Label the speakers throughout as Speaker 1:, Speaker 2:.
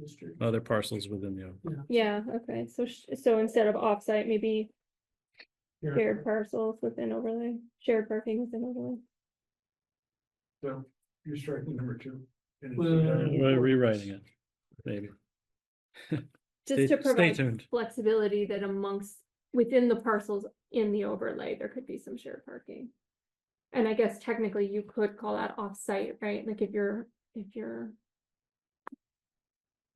Speaker 1: district.
Speaker 2: other parcels within the,
Speaker 3: Yeah, okay, so, sh- so instead of offsite, maybe
Speaker 1: Here.
Speaker 3: shared parcels within overlay, shared parking within overlay.
Speaker 1: So you're striking number two. and it's-
Speaker 2: Yeah, we're rewriting it, maybe. Stay-
Speaker 3: Just to
Speaker 2: Stay
Speaker 3: provide
Speaker 2: tuned.
Speaker 3: flexibility that amongst, within the parcels in the overlay, there could be some shared parking. And I guess technically you could call that offsite, right? Like if you're, if you're,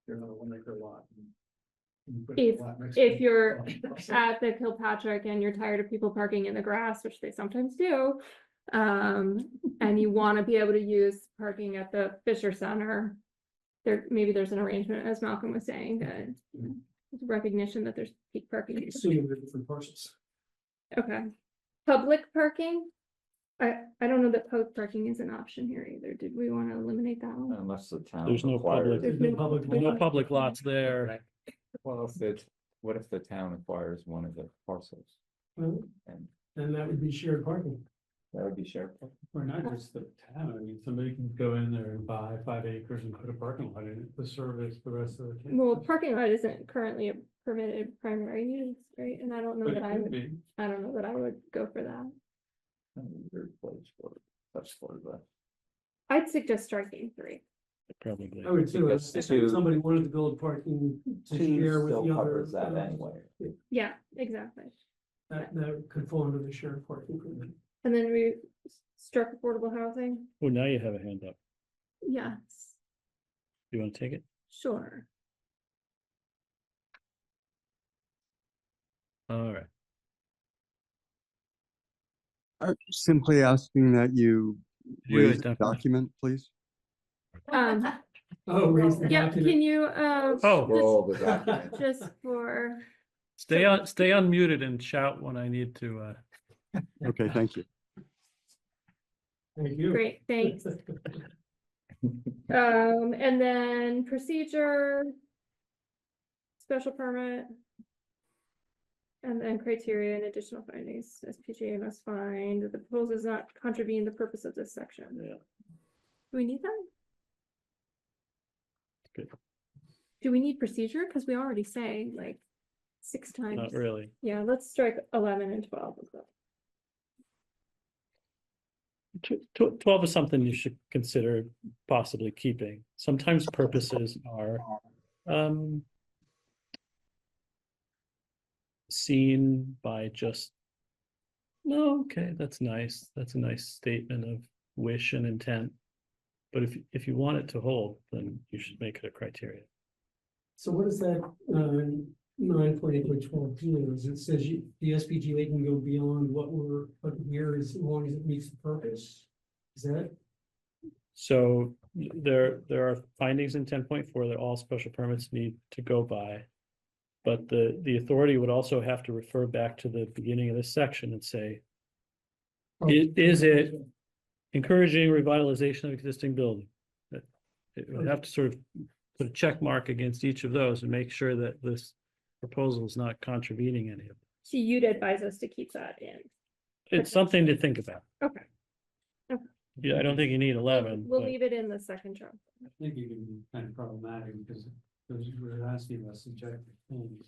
Speaker 1: You're on a one acre lot. and you put
Speaker 3: If-
Speaker 1: a lot next to
Speaker 3: if
Speaker 1: it.
Speaker 3: you're at the Kilpatrick and you're tired of people parking in the grass, which they sometimes do. Um, and you want to be able to use parking at the Fisher Center. There, maybe there's an arrangement, as Malcolm was saying, that it's recognition that there's peak parking.
Speaker 1: So you have different parcels.
Speaker 3: Okay. Public parking? I, I don't know that public parking is an option here either. Did we want to eliminate that
Speaker 4: Uh,
Speaker 3: one?
Speaker 5: Unless the town.
Speaker 2: There's no
Speaker 5: acquires
Speaker 2: public-
Speaker 5: it.
Speaker 3: There's no
Speaker 1: public
Speaker 2: There's No
Speaker 3: lot.
Speaker 2: public lots there.
Speaker 5: Well, if the, what if the town acquires one of the parcels
Speaker 4: Well,
Speaker 5: and
Speaker 4: then that would be shared parking,
Speaker 5: that would be shared?
Speaker 4: or not just the town, I mean, somebody can go in there and buy five acres and put a parking lot in it to service the rest of the. town.
Speaker 3: Well, parking lot isn't currently a permitted primary use, right? And I don't know
Speaker 4: But
Speaker 3: that
Speaker 4: it
Speaker 3: I
Speaker 4: could
Speaker 3: would,
Speaker 4: be,
Speaker 3: I don't know that I would go for that.
Speaker 5: kind of a weird place for- That's for the.
Speaker 3: I'd suggest striking three.
Speaker 2: Probably.
Speaker 4: I would too, if
Speaker 5: Because two-
Speaker 4: if somebody wanted to build parking to share
Speaker 5: Two
Speaker 4: with
Speaker 5: still
Speaker 4: the other.
Speaker 5: covers that anyway.
Speaker 3: Yeah, exactly.
Speaker 4: That, that could fall under the shared parking. agreement.
Speaker 3: And then we s- struck affordable housing.
Speaker 2: Well, Oh, now you have a hand up.
Speaker 3: Yes,
Speaker 2: You want to take it?
Speaker 3: sure.
Speaker 2: All right.
Speaker 6: I'm simply asking that you
Speaker 2: Yeah,
Speaker 6: raise the
Speaker 2: definitely.
Speaker 6: document, please.
Speaker 3: Um,
Speaker 4: Oh, raise the
Speaker 3: yeah,
Speaker 4: document.
Speaker 3: can you, uh,
Speaker 2: Oh.
Speaker 5: Scroll the document.
Speaker 3: just for,
Speaker 2: Stay on, stay unmuted and shout when I need to, uh,
Speaker 6: Okay, thank you.
Speaker 4: Thank you.
Speaker 3: great, thanks. Um, and then procedure. Special permit. And then criteria and additional findings, SPGA must find that the proposal does not contravene the purpose of this section.
Speaker 2: Yeah.
Speaker 3: Do we need that?
Speaker 2: Good.
Speaker 3: Do we need procedure? Cause we already say like six times.
Speaker 2: not really.
Speaker 3: Yeah, let's strike eleven and twelve. as well.
Speaker 2: Tw- tw- Twelve is something you should consider possibly keeping. Sometimes purposes are um. Seen by just. No, okay, that's nice. That's a nice statement of wish and intent. But if if you want it to hold, then you should make it a criteria.
Speaker 4: So what is that, um, nine point eight point twelve is it says you, the SPGA can go beyond what we're, what we're, as long as it meets the purpose? Is that?
Speaker 2: So there, there are findings in ten point four that all special permits need to go by. But the, the authority would also have to refer back to the beginning of this section and say.
Speaker 3: Oh.
Speaker 2: Is, is it encouraging revitalization of existing building? That- It would have to sort of put a check mark against each of those and make sure that this proposal is not contravening any of them.
Speaker 3: So you'd advise us to keep that in.
Speaker 2: It's something to think about.
Speaker 3: Okay. Okay.
Speaker 2: Yeah, I don't think you need eleven.
Speaker 3: We'll
Speaker 2: but-
Speaker 3: leave it in the second term.
Speaker 4: I think it can be kind of problematic because those who are asking us subjective things.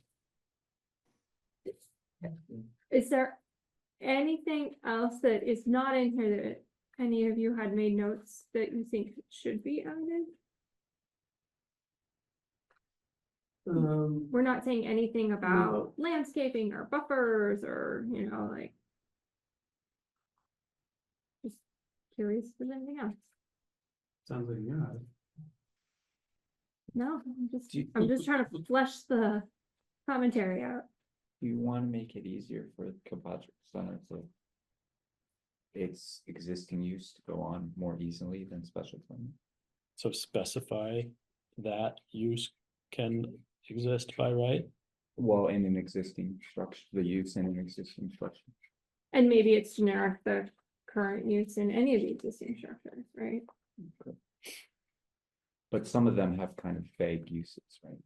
Speaker 3: Is there anything else that is not in here that any of you had made notes that you think should be added?
Speaker 4: Um,
Speaker 3: We're not saying anything about landscaping or buffers or, you know, like. Just curious if there's anything else.
Speaker 4: sounds like you're not.
Speaker 3: No, I'm just,
Speaker 5: Do you-
Speaker 3: I'm just trying to flesh the commentary out.
Speaker 5: Do you want to make it easier for Kilpatrick Center to? Its existing use to go on more easily than special permit?
Speaker 2: So specify that use can exist by right?
Speaker 5: Well, in an existing structure, the use in an existing structure.
Speaker 3: And maybe it's generic, the current use in any of the existing structures, right?
Speaker 5: But some of them have kind of vague uses, right?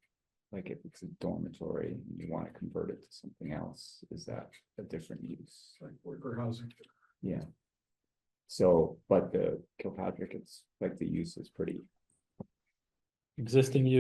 Speaker 5: Like if it's a dormitory and you want to convert it to something else, is that a different use?
Speaker 1: Like worker housing.
Speaker 5: Yeah. So, but the Kilpatrick, it's like the use is pretty
Speaker 2: Existing use